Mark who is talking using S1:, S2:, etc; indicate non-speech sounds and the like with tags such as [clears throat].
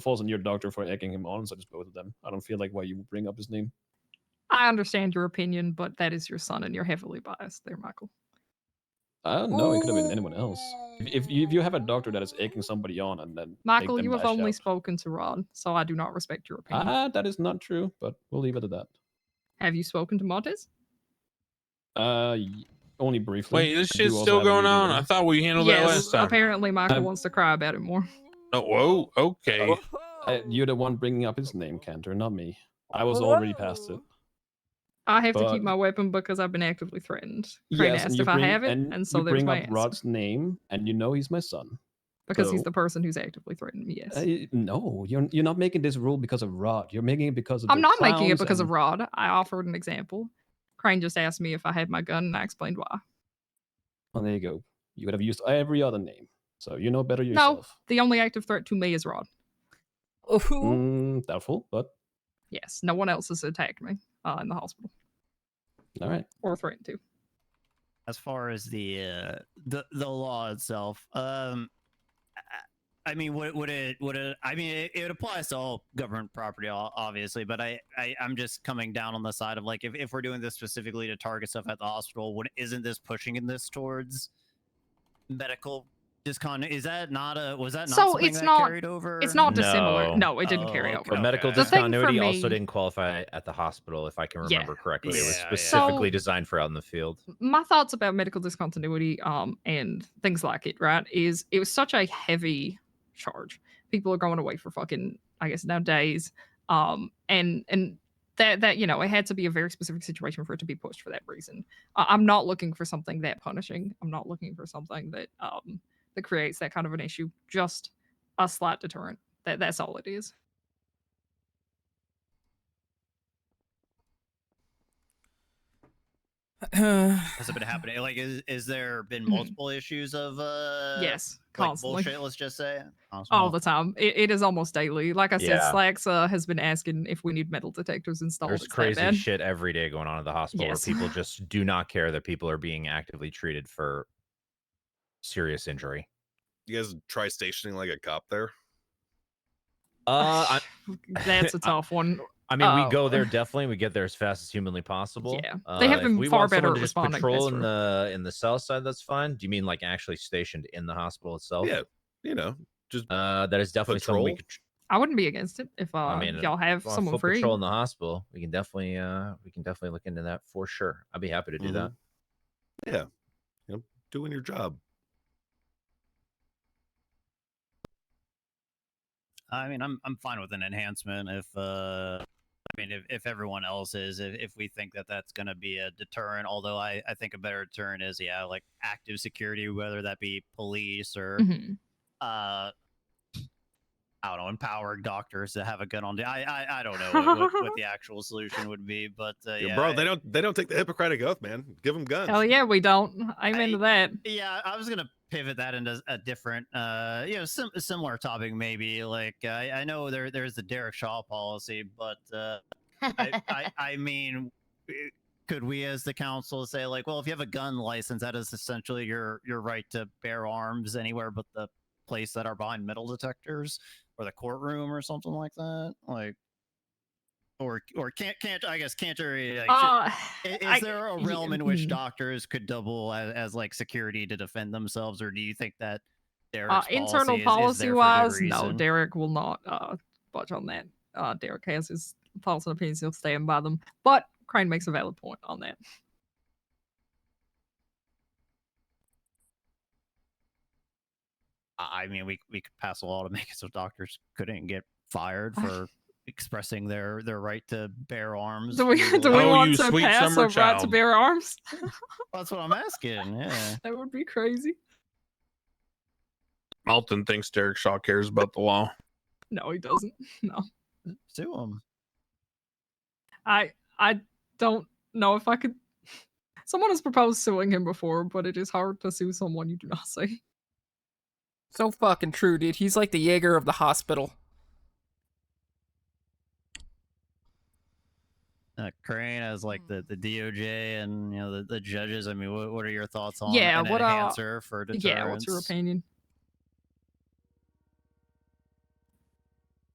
S1: falls on your doctor for egging him on, so just both of them. I don't feel like why you would bring up his name.
S2: I understand your opinion, but that is your son, and you're heavily biased there, Michael.
S1: I don't know. It could have been anyone else. If, if, you, if you have a doctor that is egging somebody on and then make
S2: Michael,
S1: them
S2: you have
S1: lash
S2: only
S1: out-
S2: spoken to Rod, so I do not respect your opinion.
S1: ah, that is not true. But we'll leave it at that.
S2: Have you spoken to Montez?
S1: Uh, y- only briefly.
S3: Wait, this
S1: I do
S3: shit's
S1: also
S3: still
S1: have a
S3: going
S1: meeting
S3: on.
S1: with
S3: I
S1: him.
S3: thought we handled that last time.
S2: apparently Michael
S1: I'm-
S2: wants to cry about it more.
S3: No,
S4: Oh,
S3: whoa,
S5: Oh.
S3: okay.
S1: I- Uh, you're the one bringing up his name, Cantor, not me. I was already past it.
S2: I have to
S1: But-
S2: keep my weapon because I've been actively threatened. Crane
S1: Yes, and
S2: asked
S1: you
S2: if
S1: bring,
S2: I have it,
S1: and,
S2: and, so
S1: you
S2: there's
S1: bring
S2: my
S1: up
S2: answer.
S1: Rod's name, and you know he's my son.
S2: because he's
S1: so-
S2: the person who's actively threatened me. Yes,
S1: Uh, y- no, you're you're not making this rule because of Rod. You're making it because of.
S2: I'm
S1: the
S2: not making it
S1: clowns
S2: because
S1: and-
S2: of Rod. I offered an example. Crane just asked me if I had my gun, and I explained why.
S1: Well, Oh, there you go. You would have used every other name, so you know better yourself.
S2: The only active threat to me is Rod.
S4: Oh,
S1: Mm, doubtful, but
S2: Yes, no one else has attacked me uh, in the hospital
S1: all right.
S2: or threatened to.
S6: as far as the uh, the the law itself. Um, I- I mean, would would it would it? I mean, it, it applies to all government property, o- obviously. But I, I I'm just coming down on the side of like, if, if we're doing this specifically to target stuff at the hospital, would isn't this pushing in this towards medical discon? Is that not a was that not
S2: So
S6: something
S2: it's
S6: that
S2: not-
S6: carried over?
S2: It's not dissimilar.
S7: No.
S2: No, it didn't
S6: Oh,
S2: carry
S6: okay.
S2: over.
S7: But medical
S3: The thing for
S7: discontinuity also
S2: me-
S7: didn't qualify at the hospital, if I can
S2: Yeah.
S7: remember correctly. It was
S3: Yeah, yeah.
S7: specifically
S2: So-
S7: designed for out in the field.
S2: my thoughts about medical discontinuity um and things like it right is it was such a heavy charge people are going away for fucking i guess nowadays um and and that that you know it had to be a very specific situation for it to be pushed for that reason I i'm not looking for something that punishing i'm not looking for something that um that creates that kind of an issue just a slight deterrent that that's all it is
S1: Mm.
S6: Has it been happening? Like, is is there been
S2: Mhm.
S6: multiple issues of uh?
S2: yes
S6: Like
S2: constantly
S6: bullshit, let's just say.
S2: all the time. It, it is almost daily. Like I said,
S7: Yeah.
S2: Slacks uh, has been asking if we need metal detectors installed.
S7: There's
S2: It's that
S7: crazy
S2: bad. [sighs]
S7: shit every day going on at the hospital
S2: Yes. [sighs]
S7: where people just do not care that people are being actively treated for serious injury.
S5: You guys try stationing like a cop there?
S7: Uh,
S2: [sighs]
S7: I,
S2: That's a tough one.
S7: I mean,
S2: Oh.
S7: we go
S2: [laughs]
S7: there definitely. We get there as fast as humanly possible.
S2: Yeah.
S7: Uh,
S2: They have
S7: if
S2: been
S7: we
S2: far
S7: want someone
S2: better
S7: to
S2: at
S7: just
S2: responding, that's
S7: Patrol in
S2: true.
S7: the in the south side. That's fine. Do you mean like actually stationed in the hospital itself?
S5: Yeah. You know,
S7: Uh, that is definitely something
S5: Patrol?
S7: we could. tr-
S2: I wouldn't be against it if uh,
S7: mean,
S2: y'all have
S7: on
S2: someone
S7: foot
S2: free.
S7: patrol in the hospital. We can definitely uh we can definitely look into that for sure. I'd be happy to do
S5: Mhm.
S7: that.
S5: Yeah. You know, doing your job.
S6: I mean, I'm I'm fine with an enhancement if uh, I mean, if, if everyone else is, if, if we think that that's going to be a deterrent. Although I I think a better deterrent is yeah, like active security, whether that be police or
S2: Mhm.
S6: uh. I don't know, empowering doctors to have a gun on. day. I, I I don't know what, what, what the actual solution would be, but uh,
S5: Yeah,
S6: yeah,
S5: bro, they don't they don't take the Hippocratic oath, man. Give them guns.
S2: Hell Oh, yeah, we don't. I'm
S6: I-
S2: into that.
S6: Yeah, I was gonna pivot that into a different, uh, you know, sim- similar topic maybe. Like I, I know there there's the Derek Shaw policy, but uh, I, I I mean, eh, could we as the council say like, well, if you have a gun license, that is essentially your your right to bear arms anywhere but the place that are behind metal detectors or the courtroom or something like that, like. Or, or can't can't I guess can't jury like,
S2: Uh,
S6: should- I- Is,
S2: I-
S6: there a
S2: y-
S6: realm in which
S2: mm.
S6: doctors could double as, as like security to defend themselves, or do you think that their
S2: uh, internal policy wise, no, Derek will not uh, budge on that. Uh, Derek has his thoughts and opinions. He'll stand by them. But Crane makes a valid point on that. [laughs]
S6: I I mean, we we could pass a law to make it so doctors couldn't get fired for expressing their their right to bear arms.
S2: Do we,
S6: through
S2: do
S6: law.
S2: we
S3: Oh,
S2: want
S3: you
S2: to
S3: sweet
S2: pass
S3: summer
S2: a right to
S3: child.
S2: bear arms?
S6: That's what I'm asking. Yeah.
S2: [laughs] That would be crazy.
S3: Malton thinks Derek Shaw cares about the law.
S2: No, he doesn't. No,
S6: Sue them.
S2: I I don't know if I could. Someone has proposed suing him before, but it is hard to sue someone you do not see.
S4: [clears throat] So fucking true, dude. He's like the Jaeger of the hospital.
S6: Uh, Crane as like
S2: Mm.
S6: the, the DOJ and you know the, the judges. I mean, what, what are your thoughts on
S2: Yeah,
S6: an
S2: what, uh,
S6: enhancer for deterrence?
S2: Yeah, what's your opinion?